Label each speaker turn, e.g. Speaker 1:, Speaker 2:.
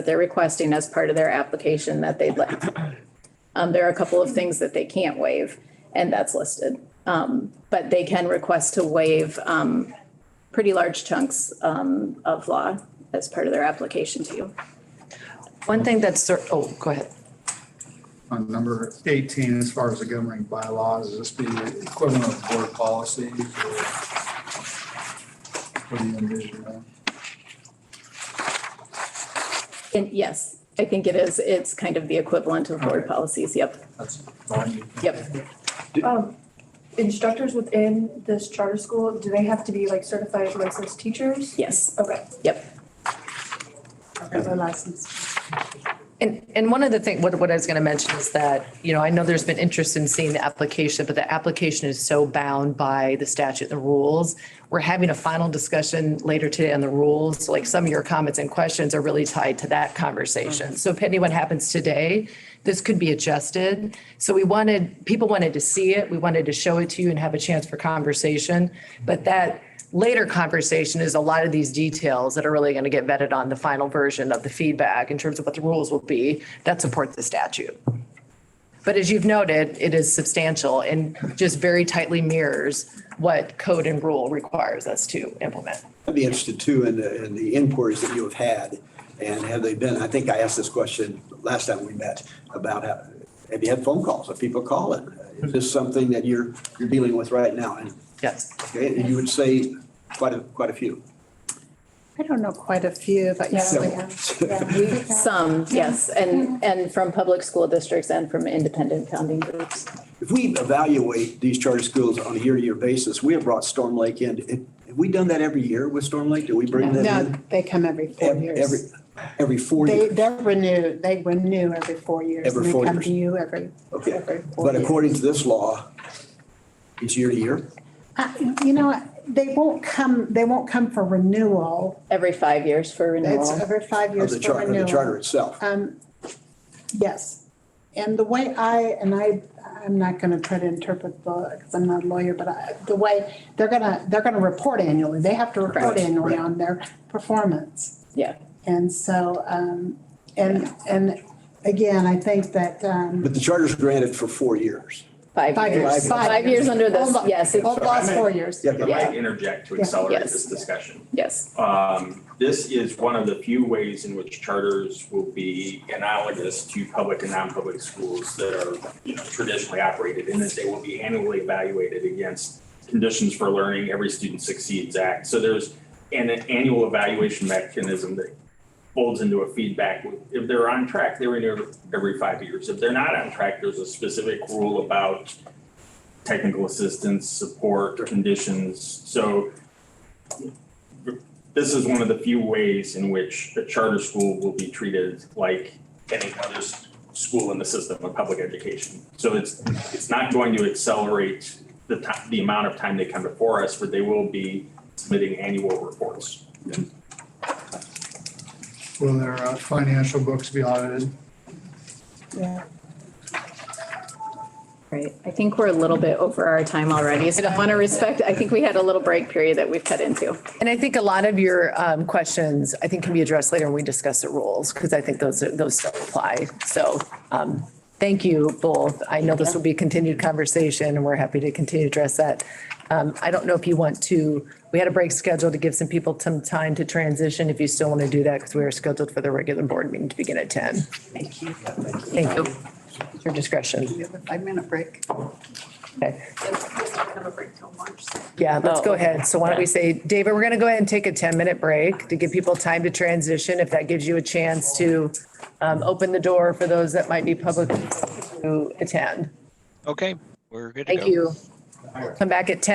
Speaker 1: that they're requesting as part of their application that they'd like. Um, there are a couple of things that they can't waive, and that's listed. Um, but they can request to waive, um, pretty large chunks, um, of law as part of their application to you.
Speaker 2: One thing that's, cer- oh, go ahead.
Speaker 3: On number 18, as far as the governing bylaws, is this the equivalent of board policies? or What do you envision? uh, that?
Speaker 1: And yes, I think it is, it's kind of the equivalent of board
Speaker 3: Okay.
Speaker 1: policies, yep,
Speaker 3: That's the one you.
Speaker 1: yep.
Speaker 4: Um, instructors within this charter school, do they have to be like certified licensed teachers?
Speaker 1: Yes,
Speaker 4: Okay.
Speaker 1: Yep.
Speaker 2: And, and one of the thing, what, what I was going to mention is that, you know, I know there's been interest in seeing the application, but the application is so bound by the statute, the rules. We're having a final discussion later today on the rules, like some of your comments and questions are really tied to that conversation. So depending what happens today, this could be adjusted. So we wanted, people wanted to see it, we wanted to show it to you and have a chance for conversation. But that later conversation is a lot of these details that are really going to get vetted on the final version of the feedback in terms of what the rules will be that support the statute. But as you've noted, it is substantial and just very tightly mirrors what code and rule requires us to implement.
Speaker 5: I'd be interested too in the, in the inquiries that you have had and have they been, I think I asked this question last time we met about how, have you had phone calls? Have people calling? Is this something that you're, you're dealing with right now? And,
Speaker 2: Yes.
Speaker 5: okay, and you would say quite a, quite a few.
Speaker 6: I don't know quite a few, but yeah, we have. yeah, we have.
Speaker 1: Some, yes, and, and from public school districts and from independent founding groups.
Speaker 5: If we evaluate these charter schools on a year-to-year basis, we have brought Storm Lake in. Have- Have we done that every year with Storm Lake? Do we bring them
Speaker 6: No,
Speaker 5: in?
Speaker 6: they come every four
Speaker 5: Ev- Every,
Speaker 6: years.
Speaker 5: every four
Speaker 6: They,
Speaker 5: years?
Speaker 6: they're renewed, they renew every four years.
Speaker 5: Every
Speaker 6: and they
Speaker 5: four
Speaker 6: come
Speaker 5: years.
Speaker 6: to you every,
Speaker 5: Okay.
Speaker 6: every four
Speaker 5: But
Speaker 6: years.
Speaker 5: according to this law, it's year-to-year?
Speaker 6: I- Uh, You know, what? they won't come, they won't come for renewal.
Speaker 1: Every five years for
Speaker 6: It's
Speaker 1: renewal.
Speaker 6: every five
Speaker 5: Of
Speaker 6: years
Speaker 5: the
Speaker 6: for
Speaker 5: charter, of the charter
Speaker 6: renewal.
Speaker 5: itself.
Speaker 6: Um, Yes. And the way I, and I, I'm not going to try to interpret the, because I'm not a lawyer, but I, the way, they're going to, they're going to report annually. They have to report
Speaker 5: Correct,
Speaker 6: annually
Speaker 5: right.
Speaker 6: on their performance.
Speaker 1: Yeah,
Speaker 6: And so, um, and, and again, I think that, um,
Speaker 5: But the charter's granted for four years.
Speaker 1: five
Speaker 6: Five
Speaker 1: years.
Speaker 6: years. Five
Speaker 1: Five years
Speaker 6: years.
Speaker 1: under this,
Speaker 6: Hold on.
Speaker 1: yes, it's-
Speaker 6: old law's four years.
Speaker 5: Yeah,
Speaker 7: If I
Speaker 5: but-
Speaker 7: might interject to
Speaker 6: Yeah.
Speaker 7: accelerate
Speaker 1: Yes.
Speaker 7: this discussion.
Speaker 1: yes,
Speaker 7: Um, This is one of the few ways in which charters will be analogous to public and non-public schools that are, you know, traditionally operated in that they will be annually evaluated against conditions for learning, every student succeeds act. So there's an annual evaluation mechanism that folds into a feedback. If they're on track, they renew every five years. If they're not on track, there's a specific rule about technical assistance, support, conditions. So this is one of the few ways in which a charter school will be treated like any other s- school in the system of public education. So it's, it's not going to accelerate the ti- the amount of time they come before us, but they will be submitting annual reports.
Speaker 3: Will their uh, financial books be audited?
Speaker 6: Yeah.
Speaker 1: right. I think we're a little bit over our time already, so I want to respect, I think we had a little break period that we've cut into.
Speaker 2: And I think a lot of your um, questions, I think, can be addressed later when we discuss the rules, because I think those, are- those still apply. So um, thank you both. I know this will be a continued conversation, and we're happy to continue to address that. Um, I don't know if you want to, we had a break scheduled to give some people some time to transition, if you still want to do that, because we are scheduled for the regular board meeting to begin at 10. Thank you. Thank you. Your discretion.
Speaker 6: We have a five-minute break.
Speaker 2: Okay.
Speaker 4: Have a break till March.
Speaker 2: Yeah, let's go ahead. So why don't we say, David, we're going to go ahead and take a 10-minute break to give people time to transition, if that gives you a chance to um, open the door for those that might be public to attend.
Speaker 8: Okay, we're good to go.
Speaker 2: Thank you. Come back at 10.